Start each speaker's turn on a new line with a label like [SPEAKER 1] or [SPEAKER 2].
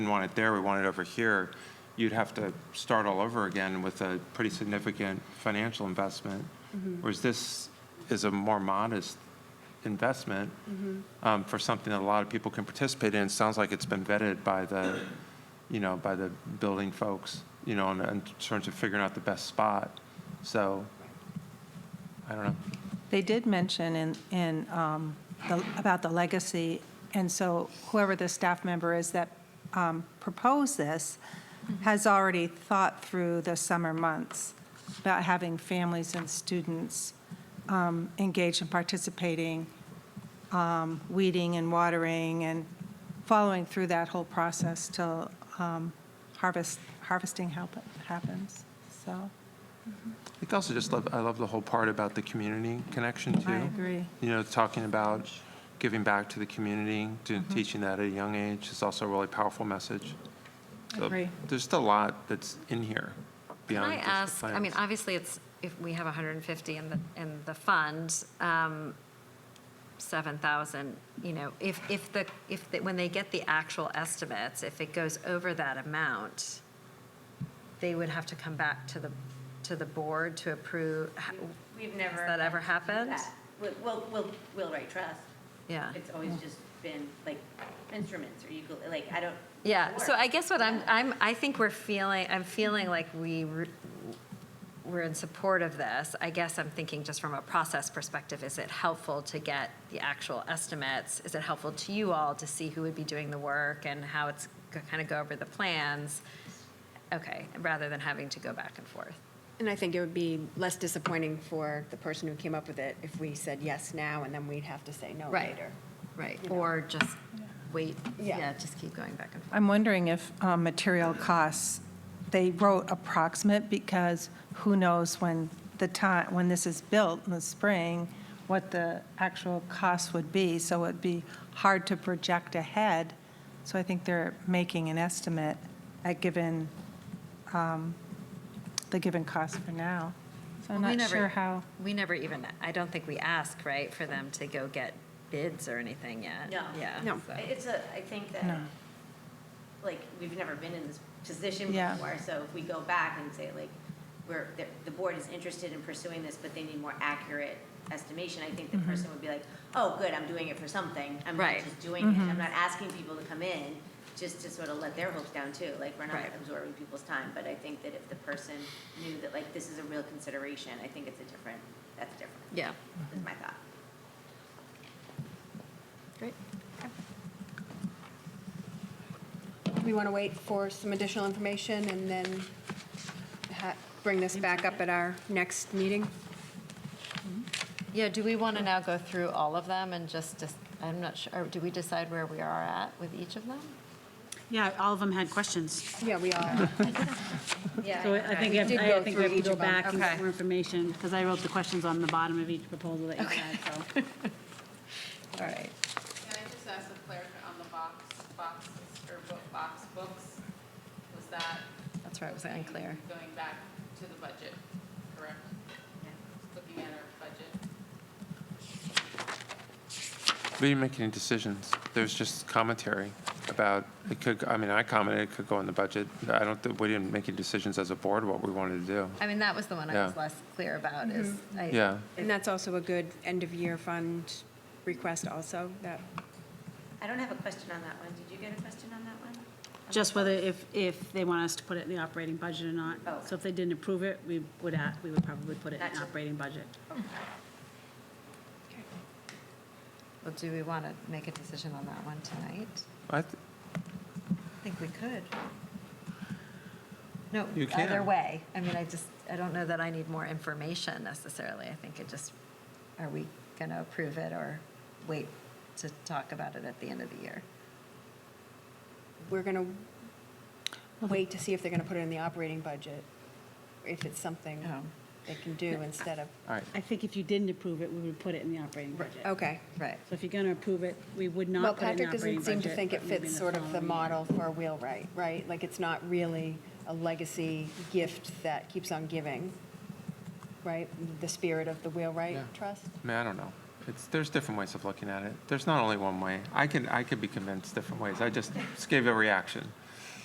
[SPEAKER 1] didn't want it there, we want it over here, you'd have to start all over again with a pretty significant financial investment. Whereas this is a more modest investment um, for something that a lot of people can participate in. It Sounds like it's been vetted by the, you know, by the building folks, you know, in- in terms of figuring out the best spot. So, I don't know.
[SPEAKER 2] They did mention in, in, um, the- about the legacy, and so whoever the staff member is that um, proposed this has already thought through the summer months about having families and students um, engaged in participating, um, weeding and watering, and following through that whole process till um, harvest, harvesting hap- happens, so,
[SPEAKER 1] I think also just love, I love the whole part about the community connection too.
[SPEAKER 2] I agree.
[SPEAKER 1] you know, talking about giving back to the community, to
[SPEAKER 3] Mm-hmm.
[SPEAKER 1] teaching that at a young age is also a really powerful message. So
[SPEAKER 2] Agree.
[SPEAKER 1] There's still a lot that's in here
[SPEAKER 3] Can
[SPEAKER 1] beyond
[SPEAKER 3] I
[SPEAKER 1] just the
[SPEAKER 3] ask, I mean,
[SPEAKER 1] plans.
[SPEAKER 3] obviously, it's, if we have 150 in the, in the fund, um, 7,000, you know, if, if the, if, the- when they get the actual estimates, if it goes over that amount, they would have to come back to the, to the board to approve, ha-
[SPEAKER 4] We've never.
[SPEAKER 3] Has that ever
[SPEAKER 4] had to do
[SPEAKER 3] happened?
[SPEAKER 4] that. Wi- Will, Will, Will Wright Trust.
[SPEAKER 3] yeah.
[SPEAKER 4] It's always just been like instruments or ukule, like, I don't.
[SPEAKER 3] Yeah, so
[SPEAKER 4] work.
[SPEAKER 3] I guess what I'm, I'm, I think we're feeling, I'm feeling like we, re- we're in support of this. I guess I'm thinking just from a process perspective, is it helpful to get the actual estimates? Is it helpful to you all to see who would be doing the work and how it's kind of go over the plans? Okay, rather than having to go back and forth.
[SPEAKER 5] And I think it would be less disappointing for the person who came up with it if we said yes now and then we'd have to say no
[SPEAKER 3] Right.
[SPEAKER 5] later.
[SPEAKER 3] Right. Or just wait,
[SPEAKER 5] Yeah.
[SPEAKER 3] yeah, just keep going back and forth.
[SPEAKER 2] I'm wondering if um, material costs, they wrote approximate because who knows when the time, when this is built in the spring, what the actual cost would be. So it'd be hard to project ahead. So I think they're making an estimate at given, um, the given cost for now. So I'm
[SPEAKER 3] Well, we
[SPEAKER 2] not
[SPEAKER 3] never-
[SPEAKER 2] sure how.
[SPEAKER 3] We never even, I don't think we ask, right, for them to go get bids or anything yet.
[SPEAKER 4] No.
[SPEAKER 3] Yeah.
[SPEAKER 5] No.
[SPEAKER 3] so-
[SPEAKER 4] It's a, I think that,
[SPEAKER 2] No.
[SPEAKER 4] like, we've never been in this position
[SPEAKER 2] Yeah.
[SPEAKER 4] before, so if we go back and say, like, we're, the, the board is interested in pursuing this, but they need more accurate estimation, I
[SPEAKER 2] Mm-hmm.
[SPEAKER 4] think the person would be like, oh, good, I'm doing it for something, I'm not
[SPEAKER 3] Right.
[SPEAKER 4] just doing
[SPEAKER 2] Mm-hmm.
[SPEAKER 4] it, I'm not asking people to come in, just to sort of let their hopes down too, like, we're not
[SPEAKER 3] Right.
[SPEAKER 4] absorbing people's time, but I think that if the person knew that, like, this is a real consideration, I think it's a different, that's different,
[SPEAKER 3] Yeah.
[SPEAKER 2] Mm-hmm.
[SPEAKER 4] is my thought.
[SPEAKER 3] Great.
[SPEAKER 5] Do we want to wait for some additional information and then ha- bring this back up at our next meeting?
[SPEAKER 3] Yeah, do we want to now go through all of them and just, dis- I'm not sure, or do we decide where we are at with each of them?
[SPEAKER 6] Yeah, all of them had questions.
[SPEAKER 5] Yeah, we are.
[SPEAKER 6] So I think,
[SPEAKER 5] did
[SPEAKER 6] I
[SPEAKER 5] go
[SPEAKER 6] think we
[SPEAKER 5] through
[SPEAKER 6] have to
[SPEAKER 5] each
[SPEAKER 6] go
[SPEAKER 5] of them.
[SPEAKER 6] back and
[SPEAKER 3] Okay.
[SPEAKER 6] get more information, because I wrote the questions on the bottom of each proposal that you had, so.
[SPEAKER 3] All right.
[SPEAKER 7] Can I just ask a clarification on the box, boxes, or book, box books? Was that
[SPEAKER 3] That's where I was unclear.
[SPEAKER 7] going back to the budget, correct? Looking at our budget?
[SPEAKER 1] We didn't make any decisions. There's just commentary about, it could, I mean, I commented, it could go in the budget. I don't, think- we didn't make any decisions as a board what we wanted to do.
[SPEAKER 3] I mean, that was the one I was
[SPEAKER 1] Yeah.
[SPEAKER 3] less clear about is. I-
[SPEAKER 1] Yeah,
[SPEAKER 5] And that's also a good end-of-year fund request also, that
[SPEAKER 4] I don't have a question on that one. Did you get a question on that one?
[SPEAKER 6] Just whether if, if they want us to put it in the operating budget or not.
[SPEAKER 4] Oh.
[SPEAKER 6] So if they didn't approve it, we would, a- we would probably put it in
[SPEAKER 4] Gotcha.
[SPEAKER 6] operating budget.
[SPEAKER 3] Well, do we want to make a decision on that one tonight?
[SPEAKER 1] I, th-
[SPEAKER 3] I think we could. No,
[SPEAKER 1] You
[SPEAKER 3] either
[SPEAKER 1] can.
[SPEAKER 3] way. I mean, I just, I don't know that I need more information necessarily. I think it just, are we going to approve it or wait to talk about it at the end of the year?
[SPEAKER 5] we're going to wait to see if they're going to put it in the operating budget, if it's something
[SPEAKER 3] Oh.
[SPEAKER 5] they can do instead of,
[SPEAKER 1] all right.
[SPEAKER 6] I think if you didn't approve it, we would put it in the operating budget.
[SPEAKER 5] okay.
[SPEAKER 3] Right.
[SPEAKER 6] So if you're going to approve it, we would
[SPEAKER 5] Oh. Well,
[SPEAKER 6] not put it in the
[SPEAKER 5] Patrick
[SPEAKER 6] operating
[SPEAKER 5] doesn't
[SPEAKER 6] budget.
[SPEAKER 5] seem to think it
[SPEAKER 6] but maybe
[SPEAKER 5] fits
[SPEAKER 6] in
[SPEAKER 5] sort of the
[SPEAKER 6] following year.
[SPEAKER 5] model for Wheelwright, right? Like, it's not really a legacy gift that keeps on giving, right? The spirit of the
[SPEAKER 1] Yeah.
[SPEAKER 5] Wheelwright Trust?
[SPEAKER 1] I mean, I don't know. It's, there's different ways of looking at it. There's not only one way. I can, I could be convinced different ways. I just just gave a reaction.